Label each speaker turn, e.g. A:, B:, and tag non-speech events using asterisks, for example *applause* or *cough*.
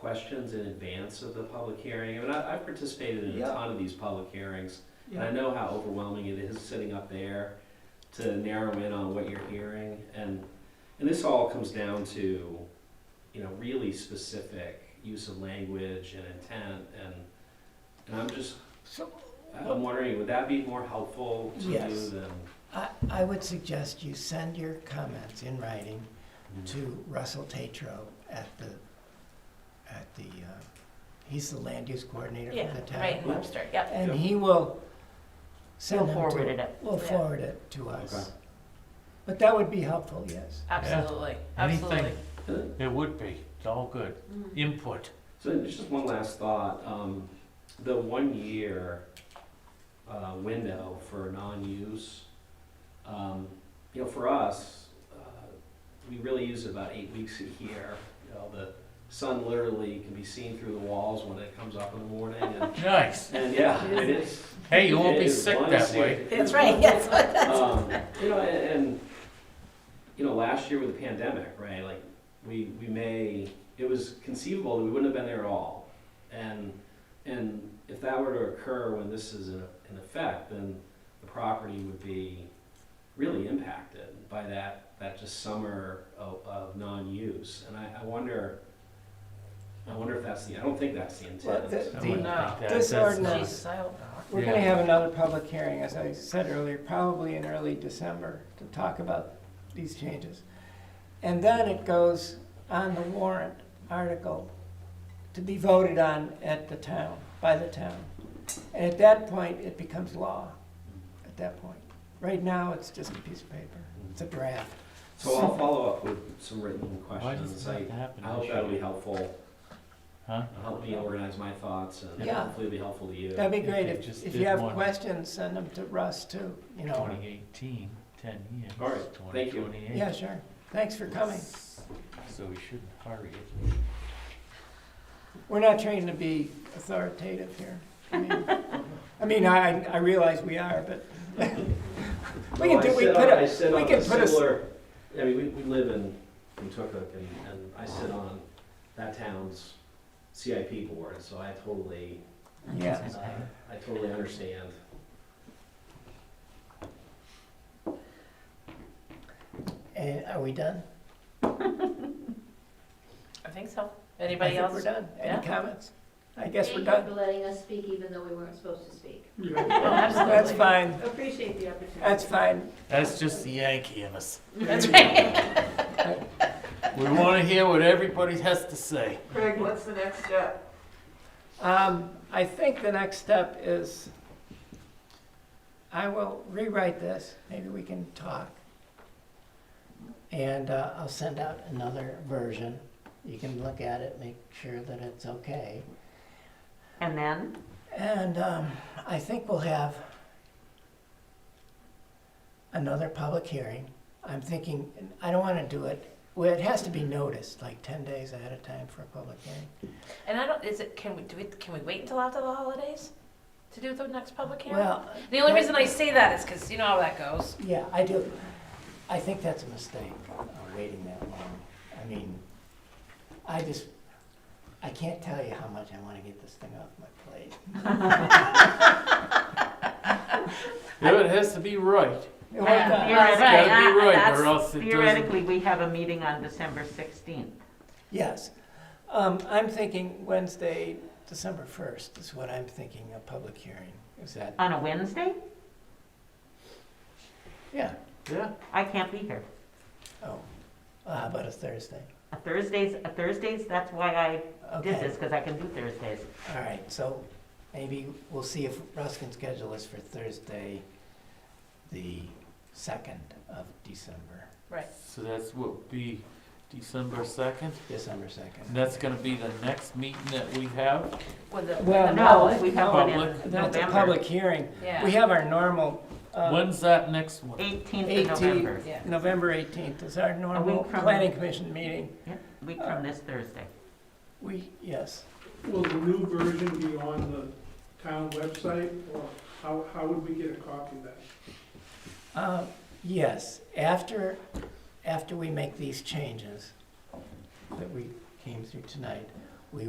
A: questions in advance of the public hearing? I mean, I, I've participated in a
B: Yeah.
A: ton of these public hearings, and I
B: Yeah.
A: know how overwhelming it is sitting up there to narrow in on what you're hearing, and, and this all comes down to, you know, really specific use of language and intent, and, and I'm just,
C: So um,
A: I'm wondering, would that be more helpful to you
C: Yes.
A: than?
C: I, I would suggest you send your comments in writing to Russell Tatro at the, at the, uh, he's the land use coordinator
D: Yeah,
C: for the town.
D: right, in Webster, yep.
C: And
A: Yeah.
C: he will
D: We'll
C: send them
D: forward it
C: to,
D: up.
C: will
D: Yeah.
C: forward it to
A: Okay.
C: us. But that would be helpful, yes.
D: Absolutely,
E: Anything.
D: absolutely.
E: It would be, it's all good. Input.
A: So there's just one last thought. Um, the one year uh, window for non-use, um, you know, for us, uh, we really use about eight weeks a year. You know, the sun literally can be seen through the walls when it comes up in the morning, and,
E: Nice.
A: and yeah, it is.
E: Hey, you won't
A: it
E: be
A: is
E: sick
A: one
E: that
A: serious-
D: *laughs*
E: way.
D: That's right, *laughs* yes.
A: um, you know, and, and you know, last year with the pandemic, right? Like we we may it was conceivable that we wouldn't have been there at all, and and if that were to occur when this is in, in effect, then the property would be really impacted by that that just summer of, of non-use, and I, I wonder. I wonder if that's the. I don't think that's the
C: Well,
A: intent.
C: the-
E: I
C: the-
E: wouldn't
D: No.
E: think that-
C: This
E: that's-
C: ordinance-
D: Jesus, I hope not.
C: We're gonna have another public hearing, as I said earlier, probably in early December, to talk about these changes. And then it goes on the warrant article to be voted on at the town, by the town. And at that point, it becomes law, at that point. Right now, it's just a piece of paper, it's a draft.
A: so I'll follow up with some written
E: Why does
A: questions. I,
E: that happen?
A: I hope that'll be helpful.
E: Huh?
A: It'll Help me organize my thoughts and
C: Yeah.
A: hopefully it'll be helpful to you.
C: That'd be
E: If
C: great,
E: they
C: if,
E: just
C: if
E: did
C: you have
E: one.
C: questions, send them to Russ too, you know.
E: 2018, 10 years.
A: All right, thank you.
E: 2028.
C: Yeah, sure, thanks for coming.
E: So we shouldn't hurry it.
C: We're not trying to be authoritative here. I mean- I mean, I, I realize we are, but *laughs* we
A: Well,
C: can
A: I
C: do, we
A: sit
C: put
A: on- I
C: a,
A: sit
C: we
A: on
C: can
A: a
C: put a s-
A: similar- I mean, we, we live in, in Tookook and, and I sit on that town's CIP board, so I totally, uh,
C: yeah,
A: I totally understand.
C: and are we done?
D: I think so.
C: I
D: Anybody
C: think
D: else?
C: we're done.
D: Yeah.
C: Any comments? I guess we're
F: Thank
C: done.
F: you for letting us speak even though we weren't supposed to speak.
D: Oh, Absolutely.
C: That's fine,
F: Appreciate the opportunity.
C: that's fine.
E: That's just the Yankee in us.
D: That's right.
E: We want to hear what everybody has to say.
G: Craig, what's the next step?
C: Um, I think the next step is, I will rewrite this, maybe we can talk. And uh, I'll send out another version. You can look at it, make sure that it's okay.
D: And then?
C: And um, I think we'll have another public hearing. I'm thinking, I don't want to do it, well, it has to be noticed, like 10 days ahead of time for a public hearing.
D: And I don't, is it, can we, do it, can we wait until after the holidays to do the next public hearing?
C: Well,
D: The only reason I say that is because you know how that goes.
C: yeah, I do, I think that's a mistake, uh, waiting that long. I mean, I just, I can't tell you how much I want to get this thing off my plate.
E: It has to be right.
C: It worked out.
E: It's got to
C: Uh,
E: be right or else it doesn't.
H: Theoretically, we have a meeting on December 16th.
C: Yes. Um, I'm thinking Wednesday, December first is what I'm thinking, a public hearing. Is that,
H: On a Wednesday?
C: yeah,
E: Yeah,
H: I can't be here.
C: oh, uh, how about a Thursday?
H: A Thursdays, a Thursdays, that's why I did
C: Okay,
H: this, because I can do Thursdays.
C: all right, so maybe we'll see if Russ can schedule us for Thursday, the second of December,
D: Right.
E: so that's what be December 2nd.
C: December second.
E: And that's going to be the next meeting that we have.
D: With the,
C: Well,
D: with the
C: no.
D: public.
H: We have one in
E: Public.
C: That's
H: November.
C: a public hearing. We
D: Yeah,
C: have our normal, uh,
E: When's that next one?
H: 18th
C: Eighteen.
H: of November,
D: yeah.
C: November eighteenth is our normal
H: from-
C: planning commission meeting.
H: Yep, week from this Thursday.
C: We, yes.
I: Will the new version be on the town website, or how, how would we get a copy of that?
C: Uh, Yes, after, after we make these changes that we came through tonight,